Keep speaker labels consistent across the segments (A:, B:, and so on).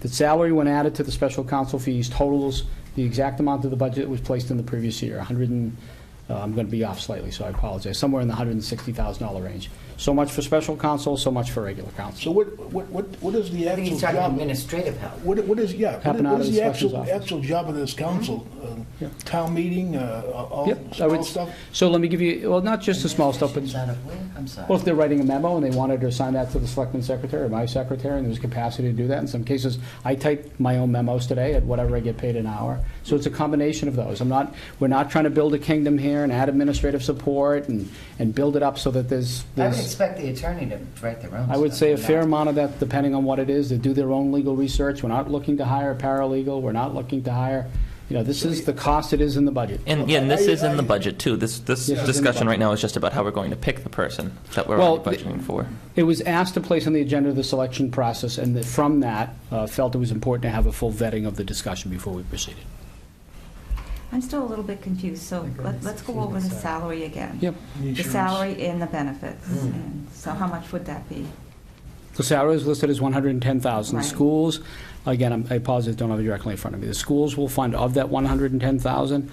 A: The salary, when added to the special counsel fees, totals the exact amount of the budget that was placed in the previous year, 100 and, uh, I'm going to be off slightly, so I apologize, somewhere in the $160,000 range. So much for special counsel, so much for regular
B: So
A: counsel.
B: what, what, what what is the
C: I think
B: actual
C: he's talking
B: job?
C: administrative help.
B: What, what is, yeah, what
A: Happen
B: is-
A: out
B: what
A: of
B: is
A: the
B: the
A: inspector's
B: actual,
A: office.
B: actual job of this council? Uh, Town meeting, uh, all,
A: Yep, I would-
B: all stuff?
A: So let me give you, well, not just the small stuff, but
C: Administration's out of where? I'm sorry.
A: Well, if they're writing a memo and they wanted to assign that to the selectman secretary or my secretary, and there's capacity to do that, in some cases, I type my own memos today at whatever I get paid an hour. So it's a combination of those. I'm not, we're not trying to build a kingdom here and add administrative support and, and build it up so that there's,
C: I would
A: there's,
C: expect the attorney to write their own.
A: I would
C: stuff,
A: say a
C: not-
A: fair amount of that, depending on what it is, they do their own legal research. We're not looking to hire a paralegal, we're not looking to hire, you know, this is the cost it is in the budget.
D: And yeah, and this
B: I-
D: is in the
B: I-
D: budget too. This this
A: Yes, it's in the
D: discussion
A: budget.
D: right now is just about how we're going to pick the person that we're
A: Well,
D: already budgeting for.
A: It was asked to place on the agenda the selection process, and that from that, uh, felt it was important to have a full vetting of the discussion before we proceeded.
E: I'm still a little bit confused, so let- let's go over the salary again.
A: Yep.
E: The salary and the benefits, and so how much would that be?
A: The salary is listed as 110,000. The
E: Right.
A: schools, again, I'm- I apologize, don't have it directly in front of me. The schools will fund of that 110,000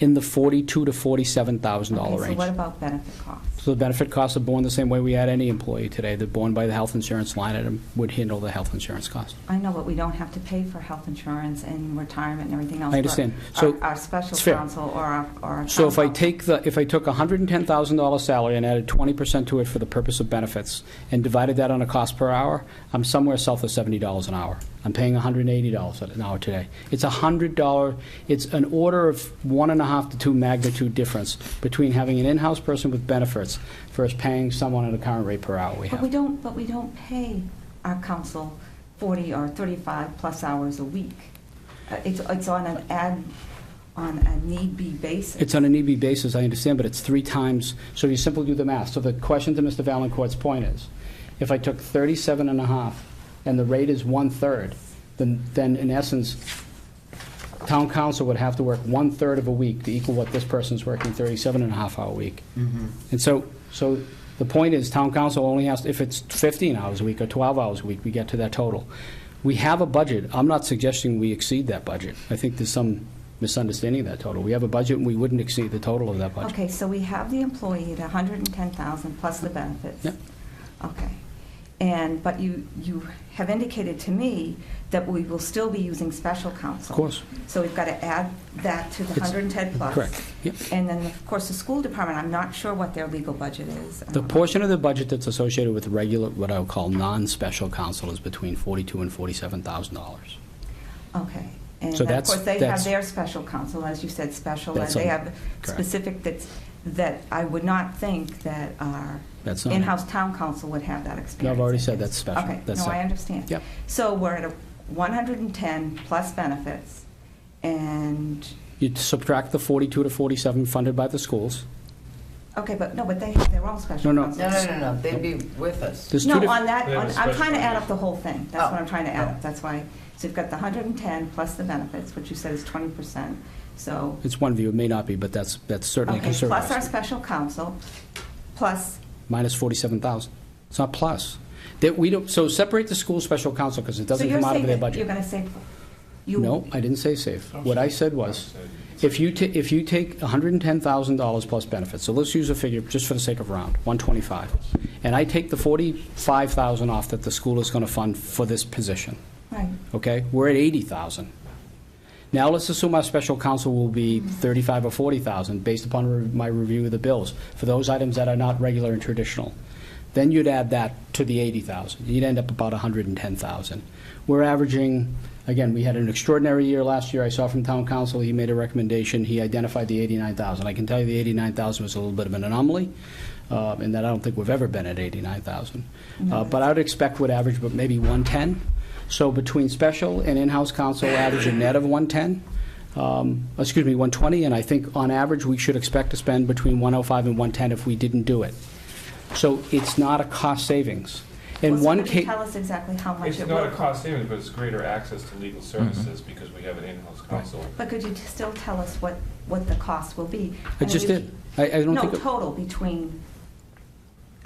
A: in the 42 to 47,000 dollar
E: Okay, So
A: range.
E: what about benefit costs?
A: So the benefit costs are borne the same way we had any employee today. They're borne by the health insurance line item, would handle the health insurance cost.
E: I know, but we don't have to pay for health insurance and retirement and everything else.
A: I
E: but
A: understand.
E: our-
A: So
E: Our special
A: it's fair.
E: counsel or our, or our.
A: So if I
E: counsel-
A: take the, if I took a hundred and ten thousand dollar salary and added twenty percent to it for the purpose of benefits and divided that on a cost per hour, I'm somewhere south of seventy dollars an hour. I'm paying hundred and eighty dollars an hour today. It's a hundred dollar, it's an order of one and a half to two magnitude difference between having an in-house person with benefits versus paying someone at a current rate per hour we
E: But we
A: have.
E: don't, but we don't pay our counsel 40 or 35 plus hours a week. Uh, It's, it's on an ad, on a need-be basis.
A: It's on an EB basis, I understand, but it's three times, so you simply do the math. So the question to Mr. Valencourt's point is, if I took 37 and a half and the rate is one-third, then, then in essence, town council would have to work one-third of a week to equal what this person's working 37 and a half hour week. And so, so the point is, town council only has, if it's 15 hours a week or 12 hours a week, we get to that total. We have a budget. I'm not suggesting we exceed that budget. I think there's some misunderstanding of that total. We have a budget, and we wouldn't exceed the total of that budget.
E: Okay, so we have the employee at 110,000 plus the benefits.
A: Yep.
E: Okay. And, but you, you have indicated to me that we will still be using special counsel.
A: Of course.
E: So we've got to add that to the
A: It's-
E: 110 plus.
A: correct, yep.
E: And then, of course, the school department, I'm not sure what their legal budget is.
A: The portion of the budget that's associated with regular, what I would call non-special council is between 42 and $47,000.
E: Okay. And
A: So
E: then, of
A: that's-
E: course, they
A: that's-
E: have their special counsel, as you said, special, and
A: That's
E: they
A: on-
E: have
A: correct.
E: specific that's, that I would not think that our
A: That's not-
E: in-house town council would have that experience.
A: No, I've already
E: I
A: said
E: guess.
A: that's special.
E: Okay,
A: That's
E: no, I
A: separate.
E: understand.
A: Yep.
E: So we're at a 110 plus benefits, and,
A: You subtract the 42 to 47 funded by the schools.
E: okay, but, no, but they have their own special
A: No, no.
E: counsel.
C: No, no, no, no, they'd be with us.
A: There's two
E: No,
A: diff-
E: on that,
F: They have
E: on-
F: a
E: I'm
F: special
E: trying to add
F: measure.
E: up the whole thing. That's what
C: Oh,
E: I'm trying to
C: oh.
E: add up. That's why, so you've got the 110 plus the benefits, which you said is 20%, so.
A: It's one view, it may not be, but that's, that's certainly a
E: Okay, plus our
A: conservative.
E: special counsel, plus,
A: Minus 47,000. It's not plus. That we don't, so separate the school special council because it
E: so
A: doesn't
E: you're
A: come out of
E: saying
A: their
E: that you're
A: budget.
E: gonna say, you.
A: No, I didn't say save. What I said was, if you, ta- if you take $110,000 plus benefits, so let's use a figure just for the sake of round, 125. And I take the 45,000 off that the school is going to fund for this position.
E: Right,
A: okay? We're at 80,000. Now, let's assume our special counsel will be 35 or 40,000, based upon re- my review of the bills, for those items that are not regular and traditional. Then you'd add that to the 80,000. You'd end up about 110,000. We're averaging, again, we had an extraordinary year last year. I saw from town council, he made a recommendation, he identified the 89,000. I can tell you the 89,000 was a little bit of an anomaly, uh, in that I don't think we've ever been at 89,000. Uh,
E: Mm-hmm.
A: But I would expect would average, but maybe 110. So between special and in-house counsel, average a net of 110, um, excuse me, 120, and I think on average, we should expect to spend between 105 and 110 if we didn't do it. So it's not a cost savings.
E: well,
A: In
E: so
A: one
E: could you
A: case,
E: tell us exactly how much
F: It's
E: it
F: not a
E: will,
F: cost savings, but it's greater access to legal services because we have an in-house counsel.
E: but could you t- still tell us what, what the cost will be?
A: I
E: mean,
A: just
E: we-
A: did. I, I don't
E: No,
A: think,
E: total between,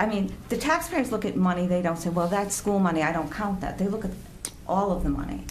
E: I mean, the taxpayers look at money, they don't say, well, that's school money, I don't count that. They look at all of the money.